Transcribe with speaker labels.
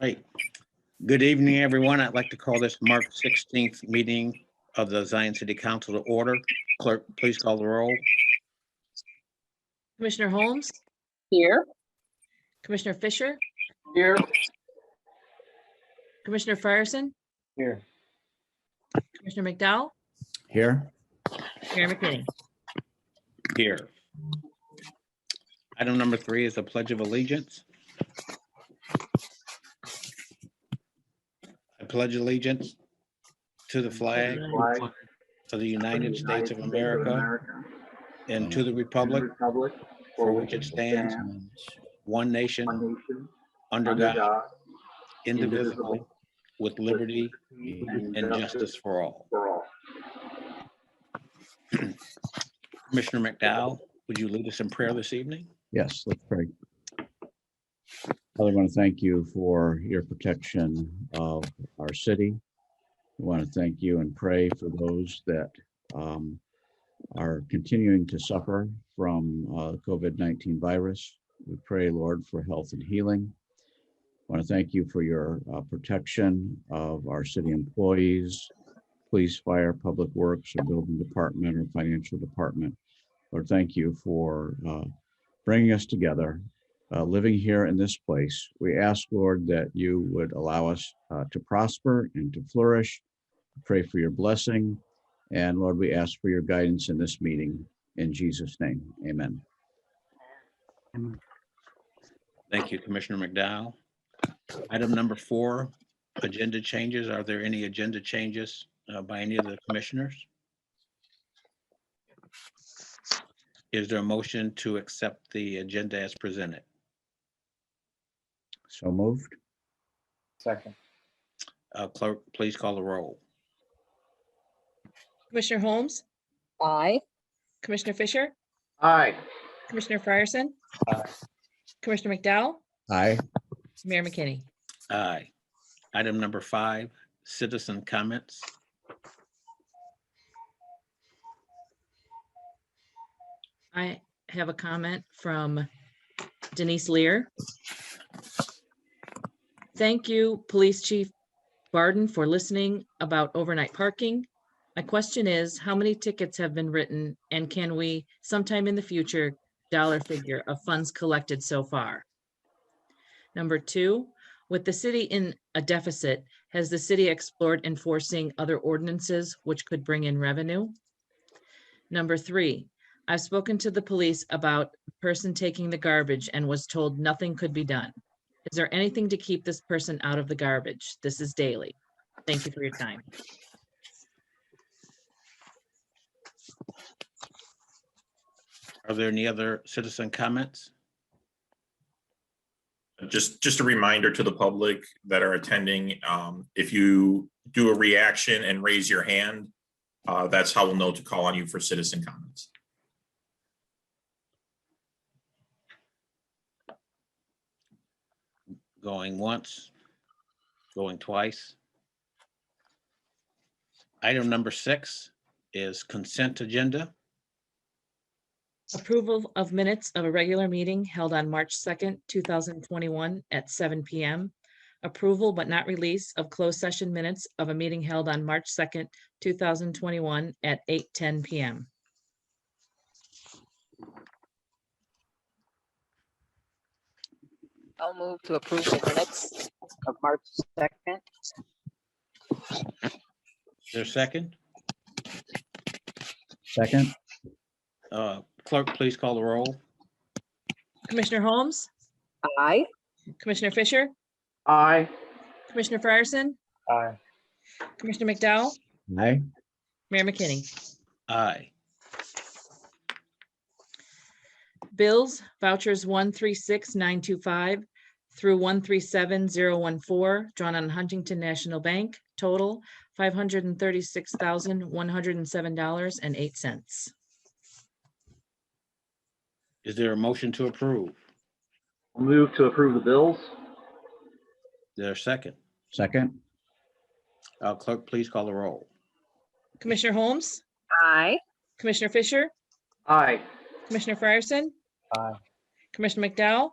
Speaker 1: Hi. Good evening, everyone. I'd like to call this March 16th meeting of the Zion City Council to order. Clerk, please call the roll.
Speaker 2: Commissioner Holmes,
Speaker 3: Here.
Speaker 2: Commissioner Fisher,
Speaker 3: Here.
Speaker 2: Commissioner Fryerson,
Speaker 3: Here.
Speaker 2: Commissioner McDowell,
Speaker 4: Here,
Speaker 2: Mayor McKinney.
Speaker 1: Here. Item number three is a pledge of allegiance. I pledge allegiance to the flag of the United States of America and to the republic
Speaker 3: Republic.
Speaker 1: for which it stands, one nation,
Speaker 3: One nation.
Speaker 1: under God, indivisible, with liberty and
Speaker 3: And
Speaker 1: justice for all.
Speaker 3: For all.
Speaker 1: Commissioner McDowell, would you lead us in prayer this evening?
Speaker 4: yes, let's pray. Father, I want to thank you for your protection of our city. We want to thank you and pray for those that um, are continuing to suffer from uh, COVID-19 virus. We pray, Lord, for health and healing. Want to thank you for your uh, protection of our city employees, police, fire, public works, or building department, or financial department. Lord, thank you for uh, bringing us together, uh, living here in this place. We ask, Lord, that you would allow us uh, to prosper and to flourish. Pray for your blessing. And Lord, we ask for your guidance in this meeting. In Jesus' name, amen.
Speaker 1: Thank you, Commissioner McDowell. Item number four, agenda changes. Are there any agenda changes uh, by any of the commissioners? Is there a motion to accept the agenda as presented?
Speaker 4: So moved.
Speaker 3: Second.
Speaker 1: Uh, Clerk, please call the roll.
Speaker 2: Commissioner Holmes,
Speaker 5: Aye.
Speaker 2: Commissioner Fisher,
Speaker 3: Aye.
Speaker 2: Commissioner Fryerson,
Speaker 3: Aye.
Speaker 2: Commissioner McDowell,
Speaker 4: Aye.
Speaker 2: Mayor McKinney.
Speaker 1: Aye. Item number five, citizen comments.
Speaker 2: I have a comment from Denise Lear. Thank you, Police Chief Barden, for listening about overnight parking. My question is, how many tickets have been written and can we sometime in the future dollar figure of funds collected so far? Number two, with the city in a deficit, has the city explored enforcing other ordinances which could bring in revenue? Number three, I've spoken to the police about the person taking the garbage and was told nothing could be done. Is there anything to keep this person out of the garbage? This is daily. Thank you for your time.
Speaker 1: Are there any other citizen comments?
Speaker 6: just, just a reminder to the public that are attending, um, if you do a reaction and raise your hand, uh, that's how we'll know to call on you for citizen comments.
Speaker 1: Going once, going twice. Item number six is consent agenda.
Speaker 2: Approval of minutes of a regular meeting held on March second, two thousand twenty-one at seven PM. Approval but not release of closed session minutes of a meeting held on March second, two thousand twenty-one at eight ten PM.
Speaker 5: I'll move to approve the minutes of March 2nd.
Speaker 1: Is there a second?
Speaker 4: Second?
Speaker 1: Uh, Clerk, please call the roll.
Speaker 2: Commissioner Holmes,
Speaker 5: Aye.
Speaker 2: Commissioner Fisher,
Speaker 3: Aye.
Speaker 2: Commissioner Fryerson,
Speaker 3: Aye.
Speaker 2: Commissioner McDowell,
Speaker 4: Aye.
Speaker 2: Mayor McKinney.
Speaker 1: Aye.
Speaker 2: Bills, vouchers one three six nine two five through one three seven zero one four, drawn on Huntington National Bank, total five hundred and thirty-six thousand, one hundred and seven dollars and eight cents.
Speaker 1: Is there a motion to approve? Is
Speaker 3: Move to approve the bills?
Speaker 1: there a second?
Speaker 4: Second?
Speaker 1: Uh, Clerk, please call the roll.
Speaker 2: Commissioner Holmes,
Speaker 5: Aye.
Speaker 2: Commissioner Fisher,
Speaker 3: Aye.
Speaker 2: Commissioner Fryerson,
Speaker 3: Aye.
Speaker 2: Commissioner McDowell,